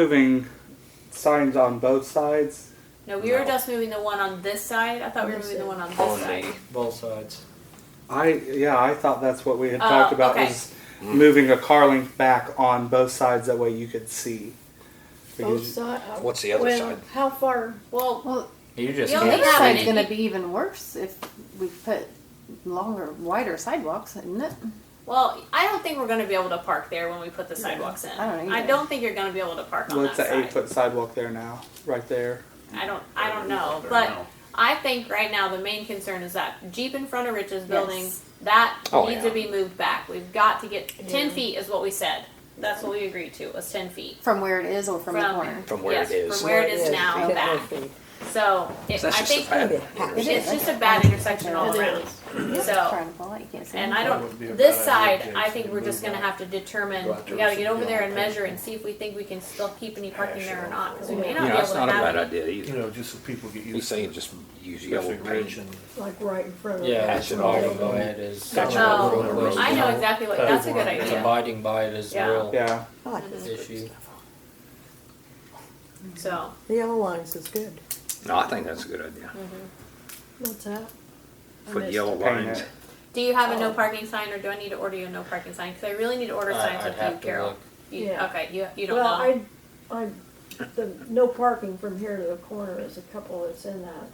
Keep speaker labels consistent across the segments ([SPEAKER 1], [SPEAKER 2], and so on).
[SPEAKER 1] moving signs on both sides,
[SPEAKER 2] No, we were
[SPEAKER 3] No.
[SPEAKER 2] just moving the one on this side. I thought we were moving the one on this side.
[SPEAKER 4] both sides.
[SPEAKER 1] I yeah, I thought that's what we had
[SPEAKER 2] Oh,
[SPEAKER 1] talked about
[SPEAKER 2] okay.
[SPEAKER 1] was moving a car link back on both sides. That way you could see.
[SPEAKER 5] Both
[SPEAKER 1] Because
[SPEAKER 5] sides.
[SPEAKER 3] What's the other
[SPEAKER 5] well,
[SPEAKER 3] side?
[SPEAKER 5] How far?
[SPEAKER 2] Well,
[SPEAKER 6] Well,
[SPEAKER 4] You just
[SPEAKER 2] The
[SPEAKER 6] the
[SPEAKER 2] only
[SPEAKER 6] other
[SPEAKER 4] can't
[SPEAKER 2] have
[SPEAKER 6] side's
[SPEAKER 2] any-
[SPEAKER 6] going to be even worse if we put longer, wider sidewalks, isn't it?
[SPEAKER 2] well, I don't think we're going to be able to park there when we put the sidewalks in.
[SPEAKER 6] I don't either.
[SPEAKER 2] think you're going to be able to park on
[SPEAKER 1] well, it's
[SPEAKER 2] that
[SPEAKER 1] an
[SPEAKER 2] side.
[SPEAKER 1] eight foot sidewalk there now, right there.
[SPEAKER 2] I don't. I don't know,
[SPEAKER 3] don't
[SPEAKER 2] but
[SPEAKER 3] know.
[SPEAKER 2] I think right now the main concern is that Jeep in front of Rich's building
[SPEAKER 6] Yes.
[SPEAKER 2] that
[SPEAKER 3] Oh,
[SPEAKER 2] needs
[SPEAKER 3] yeah.
[SPEAKER 2] to be moved back. We've got to get ten feet is what we said. That's what we agreed to was ten feet.
[SPEAKER 6] From where it is or from, the
[SPEAKER 2] From-
[SPEAKER 6] corner.
[SPEAKER 3] From where
[SPEAKER 2] yes,
[SPEAKER 3] it is.
[SPEAKER 2] From where it is now
[SPEAKER 6] Okay.
[SPEAKER 2] back. So it,
[SPEAKER 3] So
[SPEAKER 2] I
[SPEAKER 3] that's just
[SPEAKER 2] think
[SPEAKER 3] a bad
[SPEAKER 6] It
[SPEAKER 3] intersection.
[SPEAKER 6] is.
[SPEAKER 2] it's just a bad intersection all
[SPEAKER 5] It
[SPEAKER 2] around.
[SPEAKER 5] is.
[SPEAKER 2] So.
[SPEAKER 6] Front of the light, yes.
[SPEAKER 2] And I
[SPEAKER 4] would
[SPEAKER 2] don't,
[SPEAKER 4] be a
[SPEAKER 2] this
[SPEAKER 4] bad
[SPEAKER 2] side,
[SPEAKER 4] idea,
[SPEAKER 2] I
[SPEAKER 4] just
[SPEAKER 2] think
[SPEAKER 4] to
[SPEAKER 2] we're just
[SPEAKER 4] move
[SPEAKER 2] gonna
[SPEAKER 4] on.
[SPEAKER 2] have to determine,
[SPEAKER 4] Go out there
[SPEAKER 2] we gotta
[SPEAKER 4] with
[SPEAKER 2] get
[SPEAKER 4] some
[SPEAKER 2] over there and
[SPEAKER 4] yellow
[SPEAKER 2] measure and see if we think we can still keep any parking there or not, cause we may not be
[SPEAKER 3] Yeah,
[SPEAKER 2] able
[SPEAKER 3] it's
[SPEAKER 2] to
[SPEAKER 3] not a
[SPEAKER 2] have
[SPEAKER 3] bad
[SPEAKER 2] any.
[SPEAKER 3] idea
[SPEAKER 7] You
[SPEAKER 3] either.
[SPEAKER 7] know, just so people get used
[SPEAKER 3] He's
[SPEAKER 7] to
[SPEAKER 3] saying
[SPEAKER 7] it.
[SPEAKER 3] just use yellow
[SPEAKER 7] Especially Ridge
[SPEAKER 3] paint.
[SPEAKER 7] and
[SPEAKER 5] Like right in front of
[SPEAKER 4] Yeah,
[SPEAKER 5] us.
[SPEAKER 3] Patch
[SPEAKER 4] that's
[SPEAKER 3] it
[SPEAKER 4] what I
[SPEAKER 3] all
[SPEAKER 4] would go
[SPEAKER 3] over.
[SPEAKER 4] ahead is.
[SPEAKER 3] Patch it
[SPEAKER 2] all
[SPEAKER 4] uh,
[SPEAKER 2] over
[SPEAKER 4] road
[SPEAKER 3] the road.
[SPEAKER 2] Oh, Um, I know
[SPEAKER 4] wastage.
[SPEAKER 2] exactly what, that's a good
[SPEAKER 7] Yeah.
[SPEAKER 4] And
[SPEAKER 2] idea,
[SPEAKER 4] Abiding by it is the
[SPEAKER 2] Yeah. Mm-hmm.
[SPEAKER 4] real
[SPEAKER 1] Yeah,
[SPEAKER 8] I like this.
[SPEAKER 4] issue.
[SPEAKER 2] so,
[SPEAKER 8] The yellow lines is good.
[SPEAKER 3] No, I think that's a good idea.
[SPEAKER 5] What's that?
[SPEAKER 2] Mm-hmm.
[SPEAKER 5] I
[SPEAKER 3] Put
[SPEAKER 5] missed
[SPEAKER 3] yellow
[SPEAKER 5] it.
[SPEAKER 1] Paint
[SPEAKER 3] lines.
[SPEAKER 1] it.
[SPEAKER 2] do you have a no parking sign, or do I need to order you a no parking sign, cause I really need to order
[SPEAKER 4] I-
[SPEAKER 2] signs
[SPEAKER 4] I'd
[SPEAKER 2] with you,
[SPEAKER 4] have to
[SPEAKER 2] Carol.
[SPEAKER 4] look.
[SPEAKER 2] You-
[SPEAKER 5] Yeah.
[SPEAKER 2] Okay, you, you don't
[SPEAKER 5] Well,
[SPEAKER 2] know,
[SPEAKER 5] I, I, the, no parking from here to the corner is a couple that's in that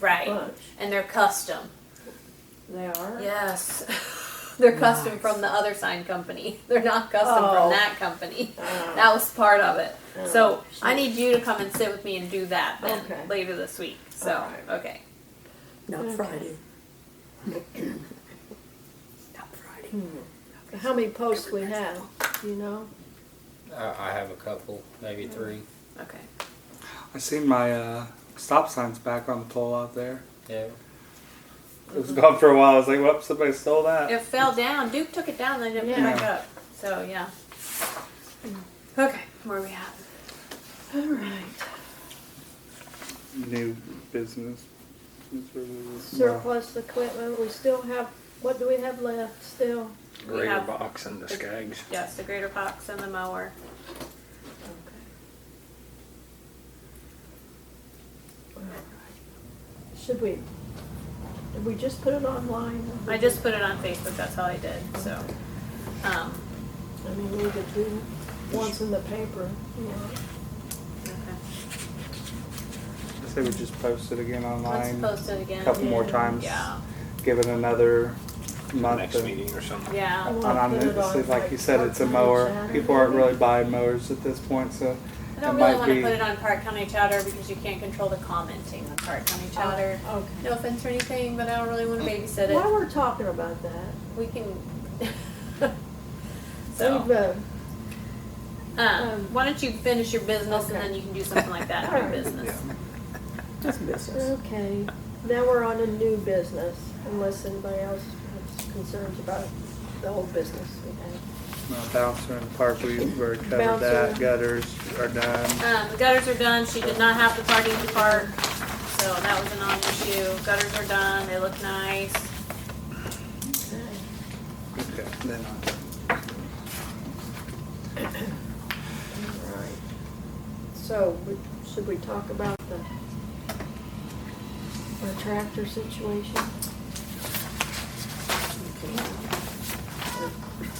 [SPEAKER 2] right,
[SPEAKER 5] bunch.
[SPEAKER 2] and they're custom,
[SPEAKER 5] They are?
[SPEAKER 2] yes, they're custom from the other sign company, they're not custom from
[SPEAKER 5] Oh.
[SPEAKER 2] that company.
[SPEAKER 5] Uh,
[SPEAKER 2] That was part of it. So
[SPEAKER 5] Oh, shit.
[SPEAKER 2] I need you to come and sit with me and do that then
[SPEAKER 5] Okay.
[SPEAKER 2] later this week. So
[SPEAKER 5] Alright.
[SPEAKER 2] okay.
[SPEAKER 8] Not
[SPEAKER 5] Okay.
[SPEAKER 8] Friday.
[SPEAKER 5] Hmm. How many posts we have, you know?
[SPEAKER 4] I, I have a couple, maybe
[SPEAKER 2] Mm-hmm.
[SPEAKER 4] three.
[SPEAKER 2] Okay.
[SPEAKER 1] I seen my uh, stop signs back on the pole out there.
[SPEAKER 4] Yeah.
[SPEAKER 1] It was
[SPEAKER 2] Mm-hmm.
[SPEAKER 1] gone for a while. I was like, "Whoops, somebody stole that."
[SPEAKER 2] It fell down. Duke took it down, then it
[SPEAKER 5] Yeah.
[SPEAKER 2] back up. So yeah. Okay, where are we at?
[SPEAKER 5] All right,
[SPEAKER 1] New business. No.
[SPEAKER 5] surplus equipment, we still have, what do we have left still?
[SPEAKER 2] We
[SPEAKER 3] Greater
[SPEAKER 2] have-
[SPEAKER 3] box and the skags.
[SPEAKER 2] Yes, the greater box and the mower.
[SPEAKER 5] Should we, did we just put it online?
[SPEAKER 2] I just put it on Facebook, that's all I did. So um
[SPEAKER 5] I mean, we could do once in the paper, you know.
[SPEAKER 2] Uh, okay.
[SPEAKER 1] I say we just post it again
[SPEAKER 2] Let's
[SPEAKER 1] online. A
[SPEAKER 2] post it again.
[SPEAKER 1] couple more times.
[SPEAKER 2] Yeah.
[SPEAKER 1] Give it another month.
[SPEAKER 3] Next
[SPEAKER 1] and-
[SPEAKER 3] meeting or something.
[SPEAKER 2] Yeah.
[SPEAKER 5] Well,
[SPEAKER 1] And I'm
[SPEAKER 5] put it
[SPEAKER 1] honestly,
[SPEAKER 5] on,
[SPEAKER 1] like you said, it's a mower.
[SPEAKER 5] part-time
[SPEAKER 1] People aren't
[SPEAKER 5] Saturday.
[SPEAKER 1] really buying mowers at this point, so
[SPEAKER 2] I
[SPEAKER 1] That
[SPEAKER 2] don't really
[SPEAKER 1] might
[SPEAKER 2] want to
[SPEAKER 1] be-
[SPEAKER 2] put it on Park County Chowder because you can't control the commenting on Park County Chowder.
[SPEAKER 5] Okay.
[SPEAKER 2] No offense or anything, but I don't really want to babysit
[SPEAKER 5] While
[SPEAKER 2] it.
[SPEAKER 5] we're talking about that,
[SPEAKER 2] We can.
[SPEAKER 5] we've,
[SPEAKER 2] so,
[SPEAKER 5] uh,
[SPEAKER 2] um, why don't you finish your business and then you can do something like that for your business.
[SPEAKER 8] Just business.
[SPEAKER 5] okay, now we're on a new business, unless anybody else has concerns about the whole business we have.
[SPEAKER 1] uh, bouncer in the park, we've already covered
[SPEAKER 5] Bouncer.
[SPEAKER 1] that. Gutters are done.
[SPEAKER 2] Um, the gutters are done. She did not have the parking to park, so that was a non-issue. Gutters are done. They look nice.
[SPEAKER 1] Okay, then on.
[SPEAKER 5] Right. So, we- should we talk about the, our tractor situation?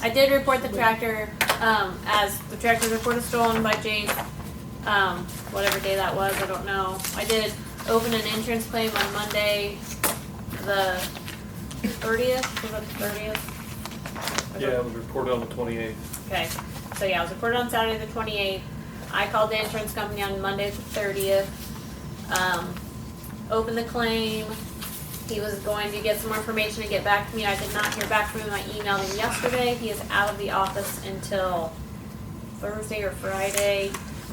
[SPEAKER 2] I did report the tractor, um, as the tractor report is stolen by Jace, um, whatever day that was, I don't know. I did open an insurance claim on Monday, the thirtieth, was it the thirtieth?
[SPEAKER 7] Yeah, it was reported on the twenty-eighth.
[SPEAKER 2] Okay, so yeah, I was reported on Saturday the twenty-eighth. I called the insurance company on Monday the thirtieth. Um, opened the claim. He was going to get some more information and get back to me. I did not hear back from him. I emailed him yesterday. He is out of the office until Thursday or Friday.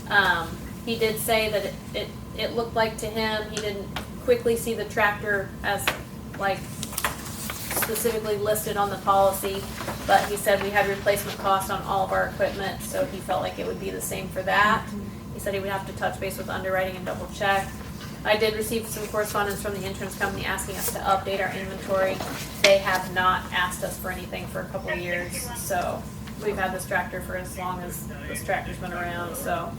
[SPEAKER 2] Um, he did say that it, it, it looked like to him, he didn't quickly see the tractor as like specifically listed on the policy, but he said we had replacement cost on all of our equipment, so he felt like it would be the same for that. He said he would have to touch base with underwriting and double check. I did receive some correspondence from the insurance company asking us to update our inventory. They have not asked us for anything for a couple of years, so we've had this tractor for as long as this tractor's been around, so.